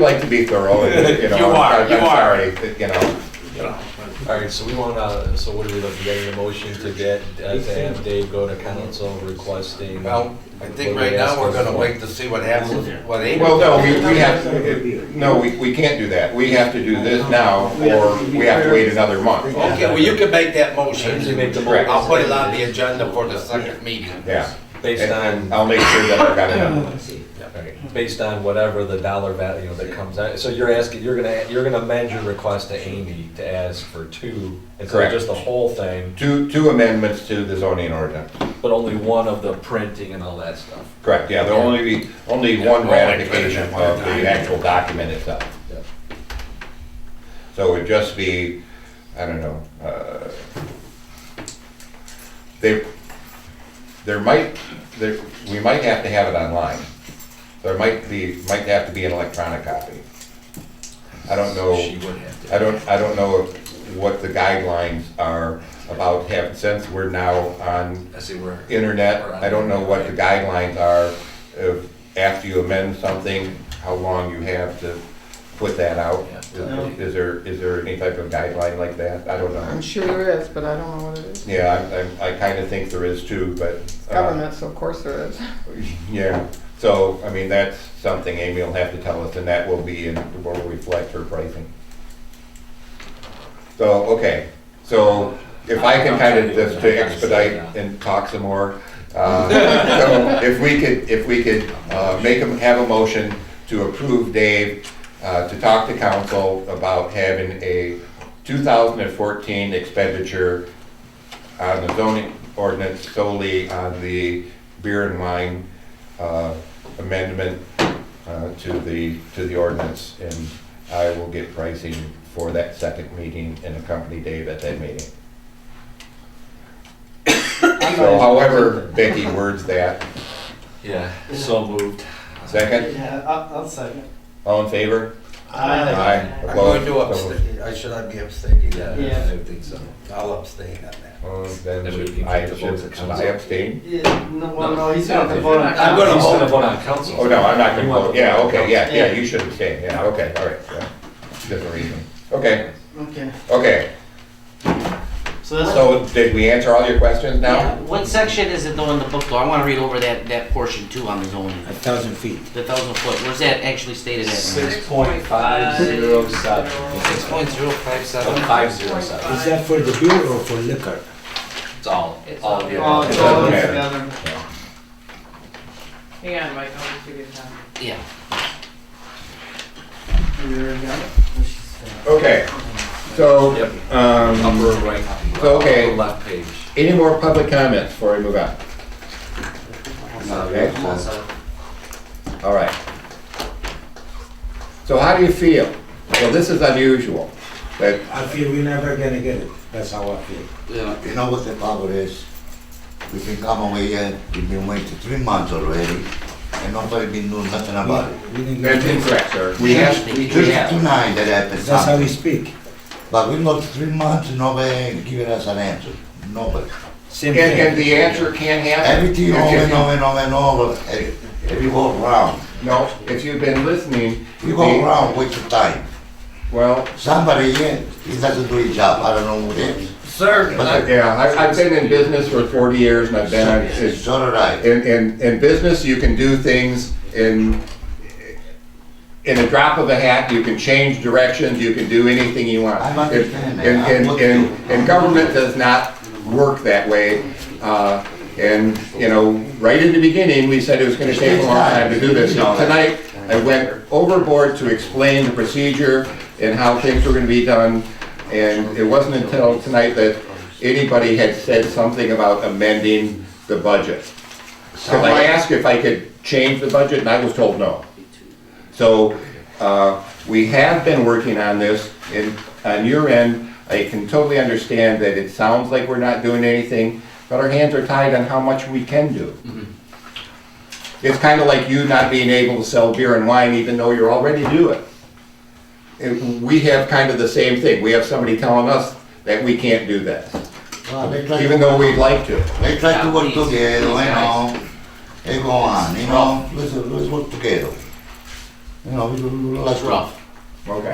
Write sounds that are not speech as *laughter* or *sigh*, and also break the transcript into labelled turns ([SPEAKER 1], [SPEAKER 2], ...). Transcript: [SPEAKER 1] like to be thorough,
[SPEAKER 2] *laughs*
[SPEAKER 1] and, you know.
[SPEAKER 2] You
[SPEAKER 1] I'm-
[SPEAKER 2] are,
[SPEAKER 1] I'm
[SPEAKER 2] you are.
[SPEAKER 1] sorry, that, You know,
[SPEAKER 2] you know.
[SPEAKER 3] All right, so we want to, so what are we looking, getting a motion to get, uh, to have Dave go to council requesting?
[SPEAKER 2] Well, I think right now we're gonna wait to see what happens, what
[SPEAKER 1] well,
[SPEAKER 2] April.
[SPEAKER 1] no, we, we have, it- no, we, we can't do that. We have to do this now, or we have to wait another month.
[SPEAKER 2] Okay, well, you can make that motion.
[SPEAKER 3] Actually make the
[SPEAKER 1] Correct.
[SPEAKER 2] I'll put it on the agenda for the second meeting.
[SPEAKER 1] Yeah.
[SPEAKER 3] Based
[SPEAKER 1] And
[SPEAKER 3] on,
[SPEAKER 1] I'll make sure that I got it.
[SPEAKER 3] based on whatever the dollar value that comes out, so you're asking, you're gonna, you're gonna amend your request to Amy to ask for two, instead of
[SPEAKER 1] Correct.
[SPEAKER 3] just the whole thing,
[SPEAKER 1] Two, two amendments to the zoning ordinance.
[SPEAKER 3] but only one of the printing and all that stuff.
[SPEAKER 1] Correct, yeah, there'll only be, only one ratification of the actual document itself.
[SPEAKER 3] Yep.
[SPEAKER 1] So it'd just be, I don't know, uh, they, there might, there, we might have to have it online. There might be, might have to be an electronic copy. I don't know.
[SPEAKER 2] She would have to.
[SPEAKER 1] I don't, I don't know if- what the guidelines are about having, since we're now on
[SPEAKER 2] I see where.
[SPEAKER 1] internet, I don't know what the guidelines are of, after you amend something, how long you have to put that out. Is is there, is there any type of guideline like that? I don't
[SPEAKER 4] I'm
[SPEAKER 1] know.
[SPEAKER 4] sure there is, but I don't know what it is.
[SPEAKER 1] Yeah, I, I kind of think there is too, but. uh,
[SPEAKER 4] Government, so of course there is.
[SPEAKER 1] *laughs* Yeah, so, I mean, that's something Amy will have to tell us, and that will be, and will reflect her pricing. So, okay, so if I can kind of just to expedite and talk some more, uh, so if we could, if we could uh, make them, have a motion to approve Dave uh, to talk to council about having a 2014 expenditure on the zoning ordinance solely on the beer and wine uh, amendment uh, to the, to the ordinance. And I will get pricing for that second meeting and accompany Dave at that
[SPEAKER 5] *coughs*
[SPEAKER 1] meeting. So however Becky words that,
[SPEAKER 3] Yeah, so moved.
[SPEAKER 1] second,
[SPEAKER 5] Yeah, I'll, I'll second.
[SPEAKER 1] all in favor?
[SPEAKER 5] Aye.
[SPEAKER 2] I'm
[SPEAKER 1] Opposed?
[SPEAKER 2] going to abstain, I should I be abstaining?
[SPEAKER 3] Yeah,
[SPEAKER 5] Yeah.
[SPEAKER 3] I think so.
[SPEAKER 2] I'll abstain on that.
[SPEAKER 1] Uh, Then
[SPEAKER 3] Then we can
[SPEAKER 1] I
[SPEAKER 3] take the votes
[SPEAKER 1] should,
[SPEAKER 3] at
[SPEAKER 1] should I abstain?
[SPEAKER 5] Yeah, no, well, no, he's
[SPEAKER 3] No,
[SPEAKER 5] gonna vote on.
[SPEAKER 2] I'm gonna
[SPEAKER 3] He's
[SPEAKER 2] vote.
[SPEAKER 3] gonna vote on council.
[SPEAKER 1] Oh, no, I'm not gonna vote, yeah, okay, yeah, yeah,
[SPEAKER 5] Yeah.
[SPEAKER 1] you should abstain, yeah, okay, all right, yeah. Different reason, okay,
[SPEAKER 5] Okay,
[SPEAKER 1] okay.
[SPEAKER 6] So that's
[SPEAKER 1] So did we answer all your questions
[SPEAKER 6] yeah,
[SPEAKER 1] now?
[SPEAKER 6] what section is it though in the book though? I want to read over that, that portion too on the zoning.
[SPEAKER 7] A thousand feet.
[SPEAKER 6] The thousand foot, where's that actually stated at?
[SPEAKER 3] Six point five zero seven.
[SPEAKER 2] Six point zero five seven.
[SPEAKER 3] Five zero seven.
[SPEAKER 7] Is that for the beer or for liquor?
[SPEAKER 3] It's all, all of the.
[SPEAKER 5] all, all
[SPEAKER 1] It doesn't matter.
[SPEAKER 5] together.
[SPEAKER 8] Hang on, Mike, I'll just give you the time.
[SPEAKER 6] Yeah.
[SPEAKER 5] There we go.
[SPEAKER 1] Okay, so,
[SPEAKER 3] Yep.
[SPEAKER 1] um,
[SPEAKER 3] Upper right.
[SPEAKER 1] So, okay.
[SPEAKER 3] upper Left page.
[SPEAKER 1] any more public comments before we move on? Okay, all right. So how do you feel? Well, this is unusual, but,
[SPEAKER 7] I feel we're never gonna get it. That's how I feel.
[SPEAKER 9] Yeah, you know what the problem is? We've been coming away here, we've been waiting three months already, and nobody been doing nothing about it.
[SPEAKER 7] We didn't
[SPEAKER 1] that's
[SPEAKER 7] get it.
[SPEAKER 1] incorrect, sir.
[SPEAKER 9] We have,
[SPEAKER 6] we
[SPEAKER 9] just
[SPEAKER 6] have.
[SPEAKER 9] tonight that happened
[SPEAKER 7] That's how we
[SPEAKER 9] something,
[SPEAKER 7] speak.
[SPEAKER 9] but we looked three months, nobody giving us an answer, nobody.
[SPEAKER 7] Same
[SPEAKER 1] And, and
[SPEAKER 7] thing.
[SPEAKER 1] the answer can happen.
[SPEAKER 9] Everything
[SPEAKER 1] If
[SPEAKER 9] over
[SPEAKER 1] you-
[SPEAKER 9] and over and over and over, every, every go eh, round,
[SPEAKER 1] No, if you've been listening,
[SPEAKER 9] you go
[SPEAKER 1] the-
[SPEAKER 9] round, waste of time.
[SPEAKER 1] well,
[SPEAKER 9] Somebody here, he doesn't do his job, I don't know who it is.
[SPEAKER 2] Sir,
[SPEAKER 9] But I-
[SPEAKER 1] yeah, I've, I've been in business for forty years and I've been on, it's
[SPEAKER 9] It's all right.
[SPEAKER 1] In, in, in business, you can do things in, in a drop of a hat, you can change directions, you can do anything you want.
[SPEAKER 9] I understand that.
[SPEAKER 1] And- And,
[SPEAKER 9] I'm with
[SPEAKER 1] and,
[SPEAKER 9] you.
[SPEAKER 1] and government does not work that way. Uh, and, you know, right in the beginning, we said it was gonna take a long time to do this. Tonight, I went overboard to explain the procedure and how things were gonna be done. And it wasn't until tonight that anybody had said something about amending the budget. Because I asked if I could change the budget, and I was told no. So, uh, we have been working on this, and on your end, I can totally understand that it sounds like we're not doing anything, but our hands are tied on how much we can do. It's kind of like you not being able to sell beer and wine even though you're already doing. And we have kind of the same thing, we have somebody telling us that we can't do that,
[SPEAKER 9] Well, they try to-
[SPEAKER 1] even though we'd like to.
[SPEAKER 9] They try to work
[SPEAKER 6] Please,
[SPEAKER 9] together, you
[SPEAKER 6] please, guys.
[SPEAKER 9] know, they go on, you know, let's, let's work together.
[SPEAKER 10] you know, we- we- we
[SPEAKER 9] It's
[SPEAKER 10] like to-
[SPEAKER 9] rough.
[SPEAKER 1] Okay.